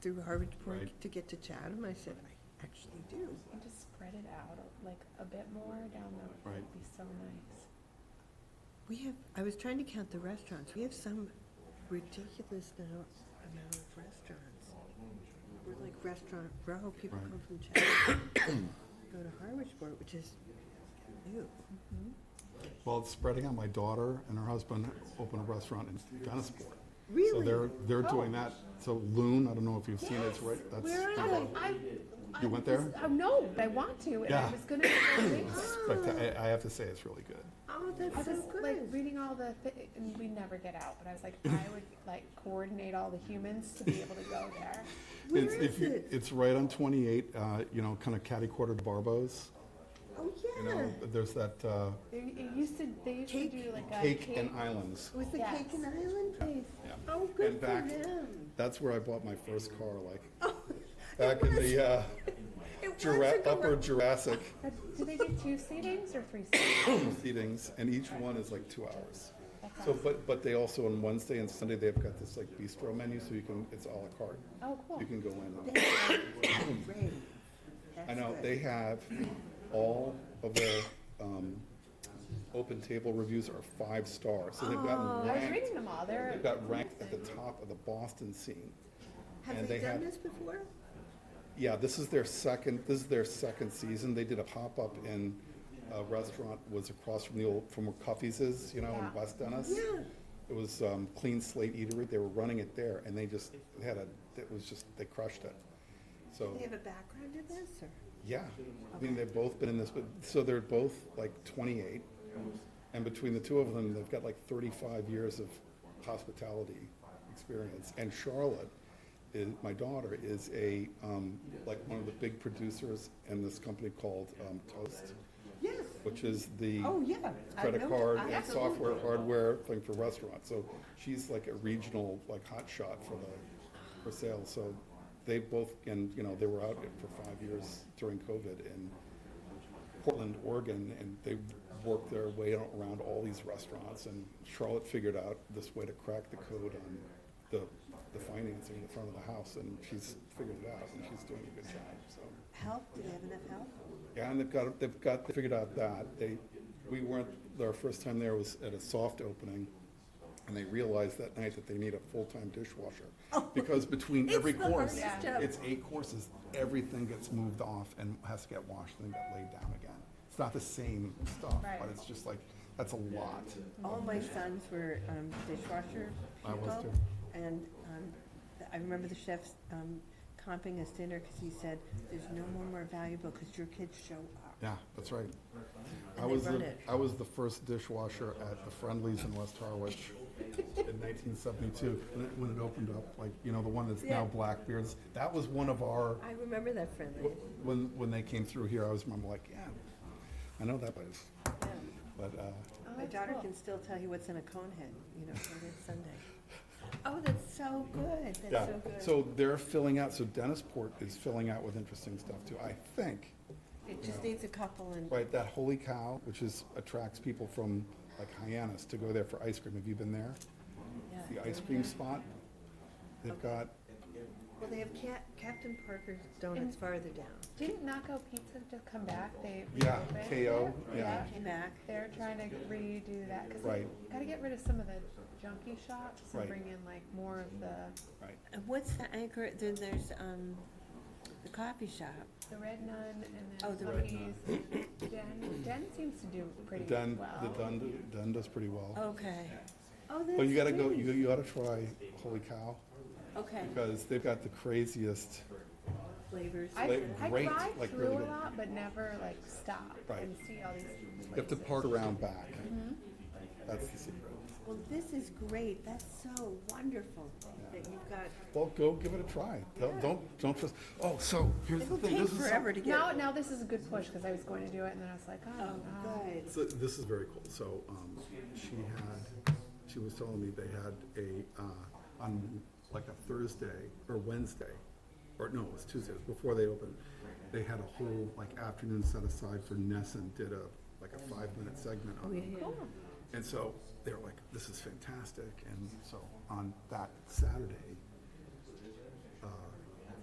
through Harvard Park Right. to get to Chatham? I said, I actually do. And just spread it out a- like a bit more down the, Right. would be so nice. We have, I was trying to count the restaurants. We have some ridiculous now amount of restaurants. We're like restaurant row. People Right. come from Chatham, go to Harwichport, which is new. Well, it's spreading out, my daughter and her husband opened a restaurant in Dennisport. So Really? they're, they're doing Oh. that, so Loon, I don't know if you've seen it, it's right, that's. Where kind are of- they? I, I You went there? was- Oh, no, but I want to, and I Yeah. was gonna. go read- it's specta- I I have to say, it's really good. Oh, I that's so was like good. reading all the, thi- and we never get out, but I was like, I would like coordinate all the humans to be able to go there. Where It's- if is you- it? It's right on 28, uh, you know, kind of catty-corner to Barbo's. Oh, You yeah. know, there's that uh, They, it used to, they used to Cake- do like a Cake cake. and Islands. It was the Yes. Cake and Island place. Yeah. Oh, good And for back- them. Oh, That's where I bought my first car, like, It back in was- the uh, it was Jura- a gar- upper Jurassic That- Uh, Do they do two seatings or three seatings? proceedings, and each one is like two hours. That's So, awesome. but, but they also, on Wednesday and Sunday, they've got this like bistro menu, so you can, it's à la carte. Oh, cool. You can go in. and- Great. I That's know, good. they have, all of their um, open table reviews are five stars, so they've gotten I was ranked. reading them all, they're. They've got ranked at the top of the Boston scene. Have and they they done have- this before? Yeah, this is their second, this is their second season. They did a pop-up in a restaurant, was across from the old, from where Cuffy's is, you know, Yeah. in West Dennis. Yeah. It was um, Clean Slate Eatery. They were running it there, and they just they had a, it was just, they crushed it. So, Do they have a background in this or? yeah, I mean, they've both been in this, but, so they're both like 28. And between the two of them, they've got like 35 years of hospitality experience. And Charlotte, is, my daughter, is a, um, like one of the big producers in this company called um, Toast, Yes. which is the Oh, yeah. I credit know- card I and absolutely- software, hardware thing for restaurants. So she's like a regional, like hot shot for the, for sales. So they both, and, you know, they were out for five years during COVID in Portland, Oregon, and they worked their way around all these restaurants. And Charlotte figured out this way to crack the code on the, the financing in the front of the house, and she's figured it out, and she's doing a good job, so. Help? Do they have enough help? Yeah, and they've got, they've got, they figured out that, they, we weren't, our first time there was at a soft opening, and they realized that night that they need a full-time dishwasher. Because between every Oh. the course, hardest job. it's eight courses, everything gets moved off and has to get washed and then get laid down again. It's not the same stuff, but Right. it's just like, that's a lot. All my sons were um, dishwasher I was people. too. And um, th- I remember the chef um, comping us dinner because he said, there's no one more valuable because your kids show up. Yeah, that's right. I And they was, run the- it. I was the first dishwasher at the Friendlies in West Harwich in nineteen seventy-two, when it, when it opened up, like, you know, the one that's now Yeah. Blackbeard's. That was one of our, I remember that friendly. wh- when, when they came through here, I was, I'm like, yeah, I know that place, Yeah. but, uh, Oh, My that's daughter cool. can still tell you what's in a cone head, you know, for this Sunday. Oh, that's so good. yeah. That's so good. So they're filling out, so Dennisport is filling out with interesting stuff too, I think. It just needs a couple and, Right, that Holy Cow, which is, attracts people from like Hyannis to go there for ice cream. Have you been there? yeah. the ice cream spot. They've got, Well, they have Cap- Captain Parker's Donuts farther down. Didn't Naco Pizza just come back? They Yeah, reopened KO, it? yeah. Came back. They're trying to redo that because Right. gotta get rid of some of the junky shops and Right. bring in like more of the right, And what's the anchor, then there's, um, the coffee shop. the Red Nun and Oh, then the Red Tony's. Den Den seems to do the pretty Dun, the well. Dun, Dun does pretty well. Okay. Oh, that's But you gotta go, great. you, you ought to try Holy Cow, Okay, because they've got the craziest, flavors. I like, I great, drive like, through really a good. lot, but never like stop Right. and see all these. you have to places. park around back. Mm-hmm. That's the secret. Well, this is great. That's so wonderful that you've got. Well, go give it a try. Don't, don't, don't trust, oh, so here's the It'll thing, take this is. so- forever to get. Now now this is a good push because I was going to do it and then I was like, oh, Oh, no. good. So this is very cool. So um, she had, she was telling me they had a, uh, on like a Thursday or Wednesday, or no, it was Tuesday, it was before they opened. They had a whole like afternoon set aside for Nessun, did a, like a five minute segment on them. Cool. And so they were like, this is fantastic. And so on that Saturday,